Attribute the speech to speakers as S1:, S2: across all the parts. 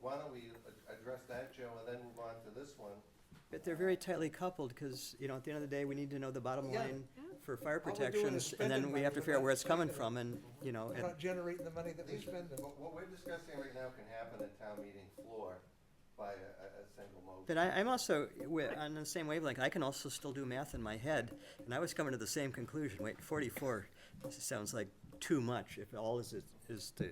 S1: why don't we a- address that, Joe, and then move on to this one?
S2: But they're very tightly coupled, because, you know, at the end of the day, we need to know the bottom
S3: Yeah.
S2: line for fire
S3: All we're doing is
S2: protections, and
S3: spending
S2: then we
S3: money,
S2: have to
S3: we're
S2: figure out
S3: not
S2: where it's coming
S3: saving it.
S2: from, and, you know,
S3: We're
S2: and,
S3: not generating the money that we
S1: These-
S3: spend.
S1: What, what we're discussing right now can happen at town meeting floor by a, a, a single motion.
S2: but I, I'm also, wi- on the same wavelength, I can also still do math in my head, and I was coming to the same conclusion, wait, forty-four sounds like too much, if all is, it- is to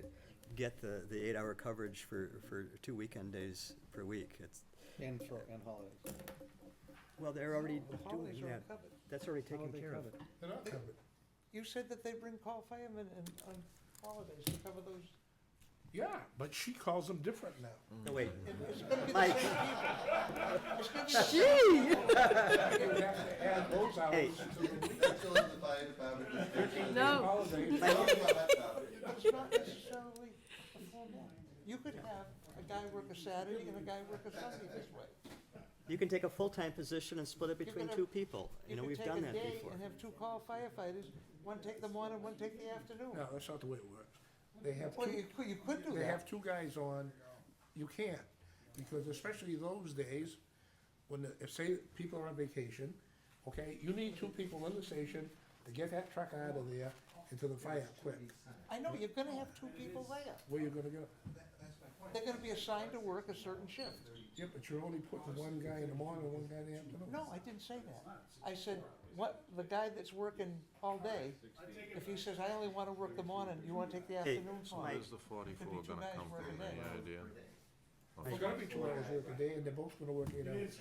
S2: get the, the eight-hour coverage for, for two weekend days per week, it's,
S4: And for, and holidays.
S2: well, they're already
S3: The holidays
S2: doing
S3: are
S2: that,
S3: covered.
S2: that's already taken
S4: Holiday
S2: care of.
S4: covered.
S5: They're not covered.
S3: You said that they bring call firemen and, on holidays to cover those.
S5: Yeah, but she calls them different now.
S2: No, wait,
S3: It's gonna be the same
S2: Mike.
S3: people. It's gonna be the
S5: They would have to add those
S2: Hey.
S5: hours to the week.
S1: That's all in the fire department discussion.
S6: No.
S5: Holidays.
S1: Talk about that topic.
S3: It's not necessarily a formal. You could have a guy work a Saturday and a guy work a Sunday this way.
S2: you can take a full-time position and split it
S3: You're
S2: between
S3: gonna-
S2: two people, you know,
S3: could
S2: we've
S3: take
S2: done
S3: a
S2: that
S3: day
S2: before.
S3: And have two call firefighters, one take the morning, one take the afternoon.
S5: No, that's not the way it works. They have
S3: Well,
S5: two,
S3: you could, you could do
S5: they
S3: that.
S5: have two guys on, you can't, because especially those days, when, the- if, say, people are on vacation, okay, you need two people in the station to get that truck out of there into the fire quick.
S3: I know, you're gonna have two people there.
S5: Where you gonna go?
S3: They're gonna be assigned to work a certain shift.
S5: Yeah, but you're only putting one guy in the morning and one guy in the afternoon.
S3: No, I didn't say that. I said, what, the guy that's working all day, if he says, I only wanna work the morning, you wanna take the
S2: Hey,
S3: afternoon off?
S2: Mike.
S7: Where's the forty-four
S3: two
S7: gonna
S3: guys
S7: come
S3: working
S7: from,
S3: there.
S7: any idea?
S5: It's gonna be two hours work a day, and they're both gonna work eight hours.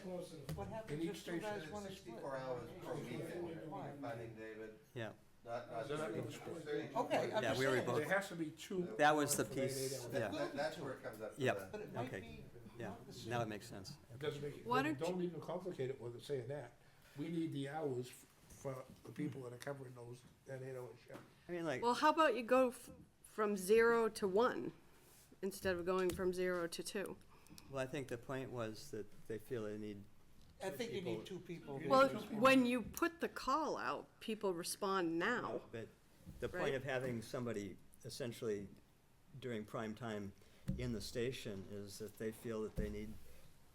S3: What
S5: In
S3: happens
S5: each
S3: if two guys
S5: station,
S3: wanna split?
S1: Sixty-four hours per weekend,
S3: Why?
S1: finding David,
S2: Yeah,
S1: not, not
S5: They're not
S1: thirty,
S5: gonna split.
S1: thirty.
S3: Okay, I'm
S2: Yeah,
S3: just
S2: we already
S3: saying,
S2: both-
S5: There has to be two.
S2: that was the
S5: for eight
S2: piece,
S5: hours.
S2: yeah,
S1: That, that's where it comes up. for
S2: Yep.
S1: the-
S3: but it might
S2: Okay.
S3: be
S2: yeah,
S3: not the same.
S2: now it makes sense.
S5: Doesn't make, it-
S6: Why
S5: don't-
S6: don't
S5: don't even complicate it with saying that. We need the hours f- for the people that are covering those, that eight hour shift.
S2: I mean, like,
S6: Well, how about you go f- from zero to one instead of going from zero to two?
S2: well, I think the point was that they feel they need,
S3: I think you need two people.
S6: Well, when you put the call out, people respond now.
S2: but the point
S6: Right.
S2: of having somebody essentially during prime time in the station is that they feel that they need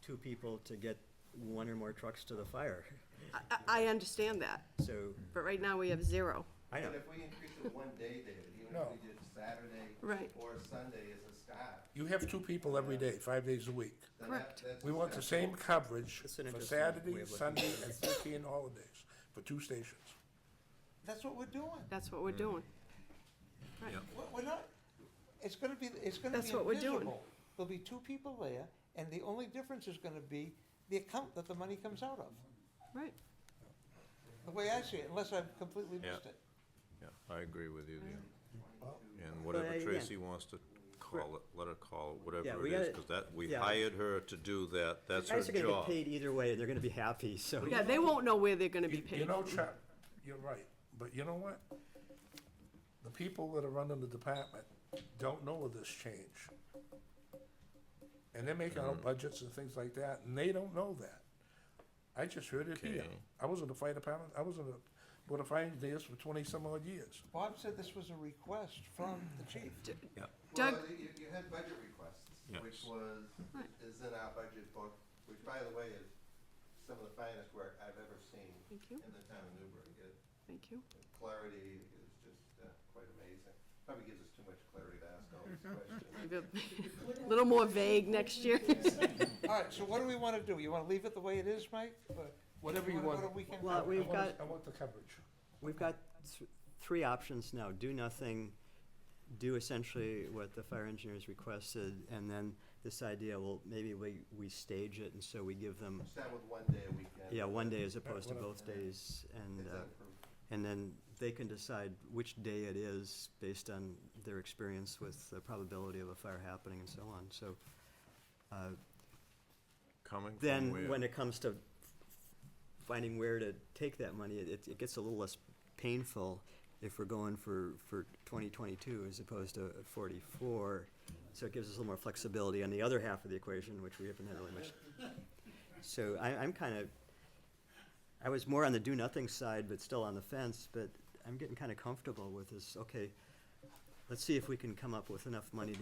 S2: two people to get one or more trucks to the fire.
S6: I, I- I understand that,
S2: So,
S6: but right now we have zero.
S2: I know,
S1: But if we increase it one day, David, even if
S5: No.
S1: we did Saturday
S6: Right.
S1: or Sunday as a start,
S5: You have two people every day, five days a week.
S1: then that,
S6: Correct.
S1: that's.
S5: We want the same coverage
S2: That's an
S5: for
S2: interesting way
S5: Saturday,
S2: of looking
S5: Sunday, and thirteen holidays for two stations.
S3: That's what we're doing.
S6: That's what we're
S5: Mm.
S6: doing.
S3: We're- We're not, it's gonna be, it's gonna be
S6: That's what we're doing.
S3: invisible. There'll be two people there, and the only difference is gonna be the account that the money comes out of,
S6: Right.
S3: the way I see it, unless I've completely
S7: Yeah.
S3: missed it.
S7: Yeah, I agree with you there. And
S2: But, uh,
S7: whatever
S2: again-
S7: Tracy wants to call it, let her call it,
S2: Yeah,
S7: whatever
S2: we
S7: it is,
S2: gotta-
S7: because that, we
S2: yeah.
S7: hired her to do that, that's her
S2: guys are gonna get
S7: job.
S2: paid either way, and they're gonna be happy, so.
S6: Yeah, they won't know where they're gonna be
S5: You you
S6: paid.
S5: know, Chuck, you're right, but you know what? The people that are running the department don't know of this change. And they're making out budgets and things like that, and they don't know that. I just heard it here.
S7: Okay.
S5: I was in the fire department, I was in the, with the fire engineers for twenty-some odd years.
S3: Bob said this was a request from the chief.
S7: Yeah.
S6: Doug-
S1: Well, you, you had budget requests, which
S7: Yes.
S1: was,
S6: Right.
S1: is in our budget book, which by the way is some of the finest work I've ever seen
S6: Thank you,
S1: in the town of Newbury. It-
S6: thank you.
S1: the Clarity is just, uh, quite amazing. Probably gives us too much clarity to ask all these questions.
S6: Maybe A little more vague next year.
S3: All right, so what do we wanna do? You wanna leave it the way it is, Mike? Or
S5: Whatever you
S3: wanna
S5: want.
S3: go to weekend?
S2: Well,
S5: I
S2: we've
S5: want-
S2: got,
S5: I want the coverage.
S2: We've got th- three options now, do nothing, do essentially what the fire engineers requested, and then this idea, well, maybe we, we stage it, and so we give them,
S1: Start with one day a weekend.
S2: yeah, one day as opposed to both days, and,
S1: It's
S2: uh,
S1: improved.
S2: and then they can decide which day it is based on their experience with the probability of a fire happening and so on, so. uh,
S7: Coming from
S2: Then, when
S7: where?
S2: it comes to finding where to take that money, it- it, it gets a little less painful if we're going for, for twenty twenty-two as opposed to forty-four. So it gives us a little more flexibility on the other half of the equation, which we haven't had really much. So I, I'm kind of, I was more on the do-nothing side, but still on the fence, but I'm getting kind of comfortable with this, okay, let's see if we can come up with enough money to